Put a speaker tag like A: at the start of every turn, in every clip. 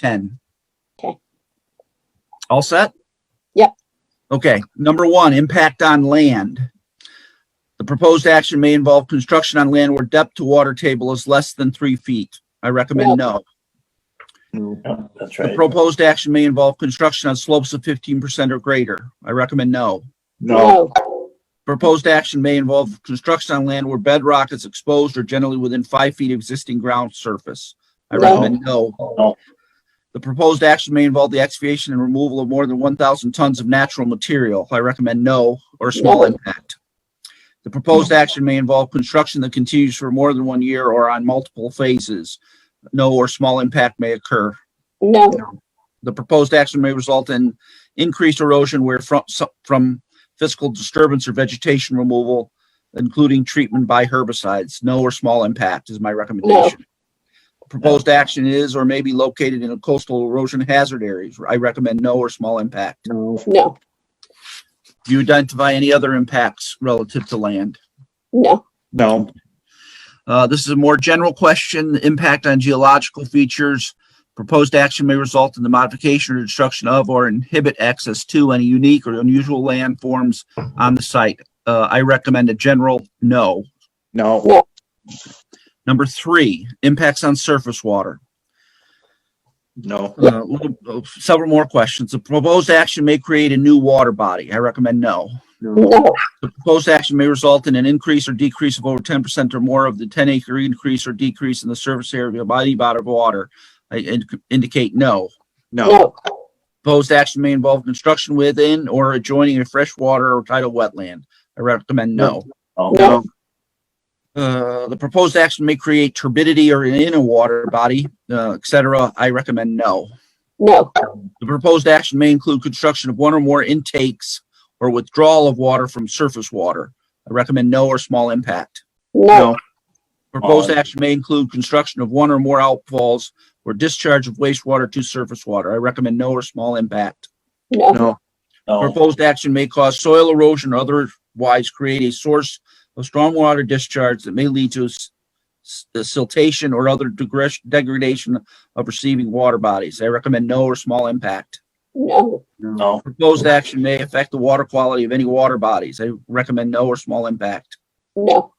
A: 10.
B: Okay.
A: All set?
B: Yep.
A: Okay, number one, impact on land. The proposed action may involve construction on land where depth to water table is less than three feet. I recommend no.
C: Yeah, That's
A: The
C: right.
A: proposed action may involve construction on slopes of 15% or greater. I recommend no.
C: No,
A: Proposed action may involve construction on land where bedrock is exposed or generally within five feet of existing ground surface. I
B: No.
A: recommend no.
C: No.
A: The proposed action may involve the excavation and removal of more than one thousand tons of natural material. I recommend no or small
B: No.
A: impact. The proposed action may involve construction that continues for more than one year or on multiple phases. No or small impact may occur.
B: No,
A: The proposed action may result in increased erosion where from, so- from physical disturbance or vegetation removal, including treatment by herbicides. No or small impact is my recommendation. Proposed action is or may be located in a coastal erosion hazard areas. I recommend no or small impact.
C: no,
B: no,
A: Do you identify any other impacts relative to land?
B: no,
C: no,
A: Uh, this is a more general question, impact on geological features. Proposed action may result in the modification or destruction of or inhibit access to any unique or unusual landforms on the site. Uh, I recommend a general no.
C: no,
A: Number three, impacts on surface water.
C: no,
A: Uh, little- uh, several more questions. The proposed action may create a new water body. I recommend no.
C: no,
B: no,
A: The proposed action may result in an increase or decrease of over ten percent or more of the ten acre increase or decrease in the surface area of any body of water. I ind- indicate no.
C: no,
B: no,
A: Proposed action may involve construction within or adjoining a freshwater or tidal wetland. I recommend no.
C: no,
A: Uh, the proposed action may create turbidity or in a water body, uh, et cetera. I recommend no.
B: no,
A: The proposed action may include construction of one or more intakes or withdrawal of water from surface water. I recommend no or small impact.
B: no,
A: Proposed
C: Aye.
A: action may include construction of one or more outfalls or discharge of wastewater to surface water. I recommend no or small impact.
B: no,
C: no, no,
A: Proposed action may cause soil erosion or otherwise create a source of stormwater discharge that may lead to s- s- siltation or other degres- degradation of receiving water bodies. I recommend no or small impact.
B: no,
C: no,
A: Proposed action may affect the water quality of any water bodies. I recommend no or small impact.
B: no,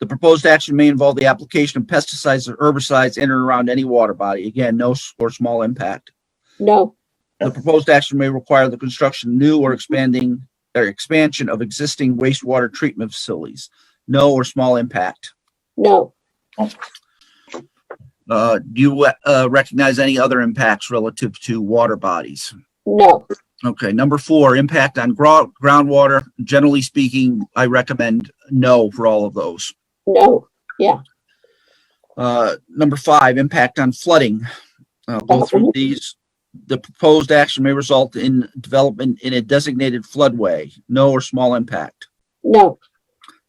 A: The proposed action may involve the application of pesticides or herbicides in or around any water body. Again, no s- or small impact.
B: no,
A: The proposed action may require the construction of new or expanding or expansion of existing wastewater treatment facilities. No or small impact.
B: no,
A: Uh, do you uh, recognize any other impacts relative to water bodies?
B: no,
A: Okay, number four, impact on gro- groundwater. Generally speaking, I recommend no for all of those.
B: no,
A: Uh, number five, impact on flooding. Uh, go through these. The proposed action may result in development in a designated floodway, no or small impact.
B: no,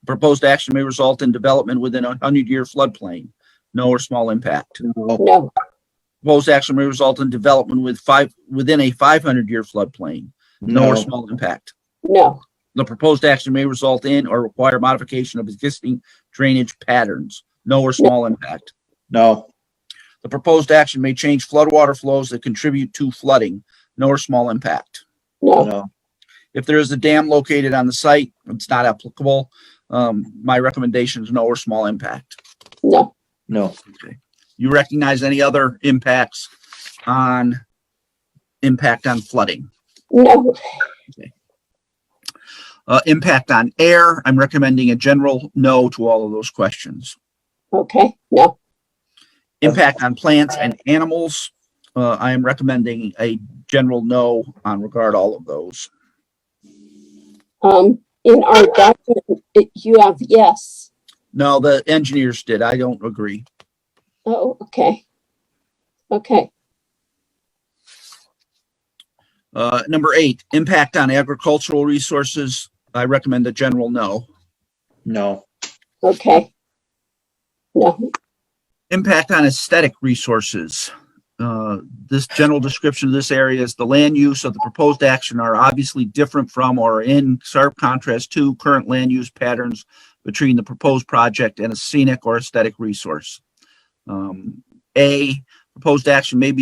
A: Proposed action may result in development within a hundred-year floodplain, no or small impact.
C: no,
B: no,
A: Proposed action may result in development with five, within a five hundred-year floodplain, no or
C: no,
A: small impact.
B: no,
A: The proposed action may result in or require modification of existing drainage patterns, no or small impact.
C: no,
A: The proposed action may change floodwater flows that contribute to flooding, no or small impact.
B: no,
C: no,
A: If there is a dam located on the site, it's not applicable. Um, my recommendation is no or small impact.
B: no,
C: no,
A: You recognize any other impacts on impact on flooding?
B: no,
A: Uh, impact on air, I'm recommending a general no to all of those questions.
B: okay, no,
A: Impact on plants and animals. Uh, I am recommending a general no on regard all of those.
B: um, in our document, it- you have yes.
A: No, the engineers did. I don't agree.
B: Oh, okay. Okay,
A: Uh, number eight, impact on agricultural resources. I recommend a general no.
C: no,
B: okay. No,
A: Impact on aesthetic resources. Uh, this general description of this area is the land use of the proposed action are obviously different from or in sharp contrast to current land use patterns between the proposed project and a scenic or aesthetic resource. Um, A, proposed action may be